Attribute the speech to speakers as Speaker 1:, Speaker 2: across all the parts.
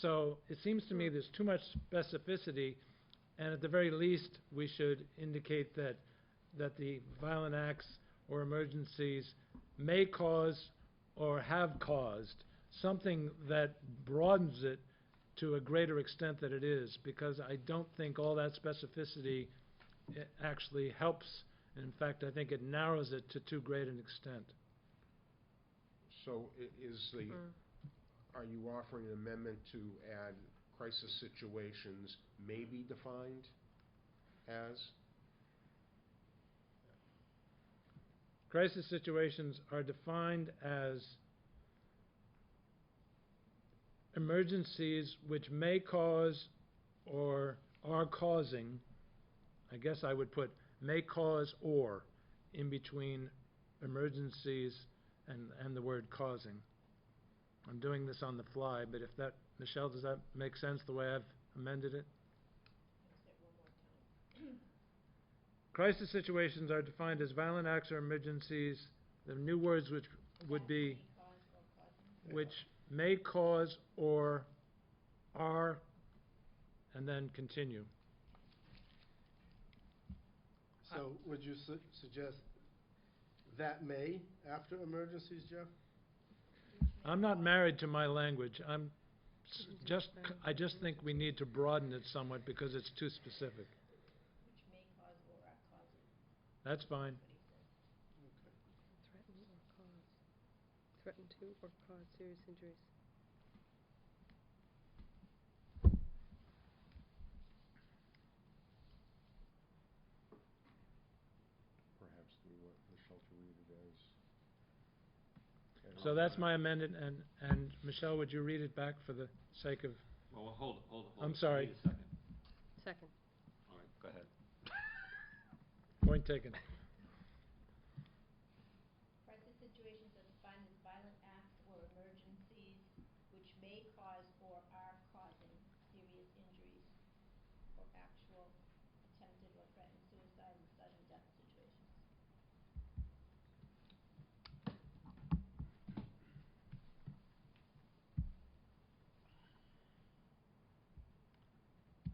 Speaker 1: So it seems to me there's too much specificity, and at the very least, we should indicate that, that the violent acts or emergencies may cause or have caused something that broadens it to a greater extent that it is, because I don't think all that specificity eh, actually helps. In fact, I think it narrows it to too great an extent.
Speaker 2: So i- is the,
Speaker 3: Mm-hmm.
Speaker 2: are you offering an amendment to add crisis situations may be defined as?
Speaker 1: Crisis situations are defined as emergencies which may cause or are causing, I guess I would put may cause or in between emergencies and, and the word causing. I'm doing this on the fly, but if that, Michelle, does that make sense the way I've amended it? Crisis situations are defined as violent acts or emergencies, the new words which would be, which may cause or are, and then continue.
Speaker 4: So would you su- suggest that may after emergencies, Jeff?
Speaker 1: I'm not married to my language, I'm s- just, c- I just think we need to broaden it somewhat because it's too specific. That's fine,
Speaker 3: Threaten or cause, threaten to or cause serious injuries.
Speaker 2: Perhaps do what Michelle to read it as. And
Speaker 1: so that's
Speaker 2: I'll-
Speaker 1: my amendment, and, and Michelle, would you read it back for the sake of,
Speaker 5: Well, well, hold, hold, hold.
Speaker 1: I'm
Speaker 5: Wait
Speaker 1: sorry.
Speaker 5: a second.
Speaker 3: Second.
Speaker 5: All right, go ahead.
Speaker 1: point taken?
Speaker 6: Crisis situations are defined as violent acts or emergencies which may cause or are causing serious injuries or actual attempted or threatened suicide and sudden death situations.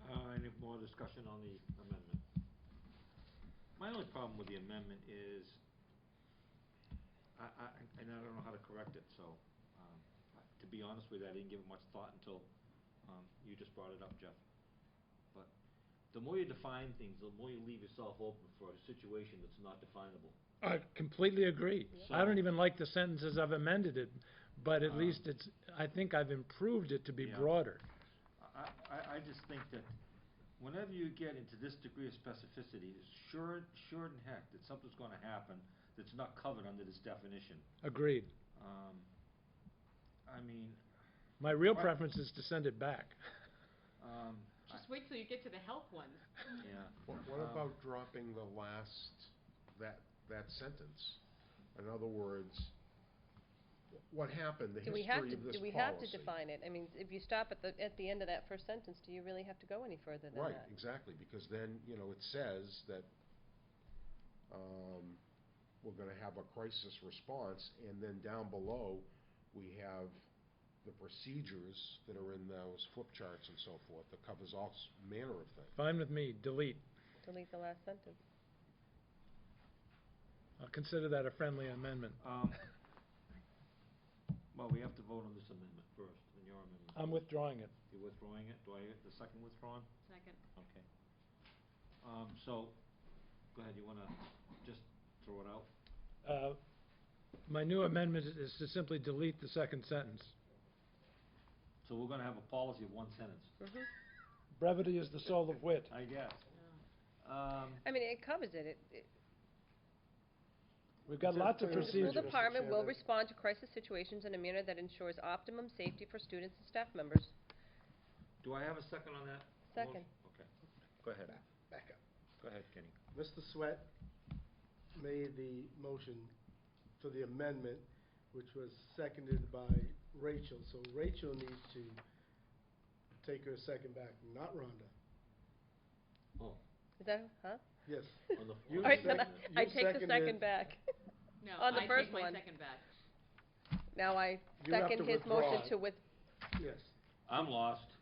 Speaker 5: Uh, any more discussion on the amendment? My only problem with the amendment is, I, I, and I don't know how to correct it, so, um, I- to be honest with you, I didn't give it much thought until, um, you just brought it up, Jeff. But the more you define things, the more you leave yourself open for a situation that's not definable.
Speaker 1: I completely agree. I don't
Speaker 5: So-
Speaker 1: even like the sentences I've amended it, but at
Speaker 5: Um,
Speaker 1: least it's, I think I've improved it to be
Speaker 5: Yeah.
Speaker 1: broader.
Speaker 5: I, I, I just think that whenever you get into this degree of specificity, it's sure, sure in heck that something's gonna happen that's not covered under this definition.
Speaker 1: Agreed.
Speaker 5: Um, I mean,
Speaker 1: My real
Speaker 5: Why-
Speaker 1: preference is to send it back.
Speaker 5: um, I-
Speaker 7: Just wait till you get to the health ones.
Speaker 5: yeah.
Speaker 2: What what
Speaker 5: Um,
Speaker 2: about dropping the last, that, that sentence? In other words, wh- what happened, the
Speaker 3: Do we have
Speaker 2: history
Speaker 3: to,
Speaker 2: of this
Speaker 3: do we have to
Speaker 2: policy?
Speaker 3: define it? I mean, if you stop at the, at the end of that first sentence, do you really have to go any further than
Speaker 2: Right,
Speaker 3: that?
Speaker 2: exactly, because then, you know, it says that, um, we're gonna have a crisis response, and then down below, we have the procedures that are in those flip charts and so forth, that covers all s- manner of things.
Speaker 1: Fine with me, delete.
Speaker 3: Delete the last sentence.
Speaker 1: I'll consider that a friendly amendment.
Speaker 5: Um, well, we have to vote on this amendment first, and your amendment.
Speaker 1: I'm withdrawing it.
Speaker 5: You're withdrawing it? Do I get the second withdrawn?
Speaker 7: Second.
Speaker 5: Okay. Um, so, go ahead, you wanna just throw it out?
Speaker 1: Uh, My new amendment is to simply delete the second sentence.
Speaker 5: So we're gonna have a policy of one sentence,
Speaker 3: Mhm.
Speaker 1: Brevity is the soul of wit.
Speaker 5: I guess. Um,
Speaker 3: I mean, it covers it. It- it-
Speaker 1: We've got
Speaker 4: Is that
Speaker 1: lots of
Speaker 4: clear?
Speaker 3: The school
Speaker 1: procedures.
Speaker 4: Mr.
Speaker 3: department will
Speaker 4: Chairman.
Speaker 3: respond to crisis situations in a manner that ensures optimum safety for students and staff members.
Speaker 5: do I have a second on that?
Speaker 3: Second.
Speaker 5: Motion? Okay, go ahead,
Speaker 4: Back up.
Speaker 5: go ahead, Kenny.
Speaker 4: Mr. Sweat made the motion for the amendment, which was seconded by Rachel. So Rachel needs to take her second back, not Rhonda.
Speaker 5: Oh,
Speaker 3: Is that, huh?
Speaker 4: Yes.
Speaker 5: on the
Speaker 4: You
Speaker 5: floor.
Speaker 3: All right,
Speaker 4: sec-
Speaker 3: then I I
Speaker 4: you
Speaker 3: take the
Speaker 4: seconded-
Speaker 3: second back.
Speaker 7: No,
Speaker 3: On Oh, the
Speaker 7: I
Speaker 3: first
Speaker 7: take my
Speaker 3: one.
Speaker 7: second back.
Speaker 3: Now I
Speaker 4: You have
Speaker 3: second
Speaker 4: to
Speaker 3: his motion
Speaker 4: withdraw.
Speaker 3: to with,
Speaker 4: Yes.
Speaker 5: I'm lost.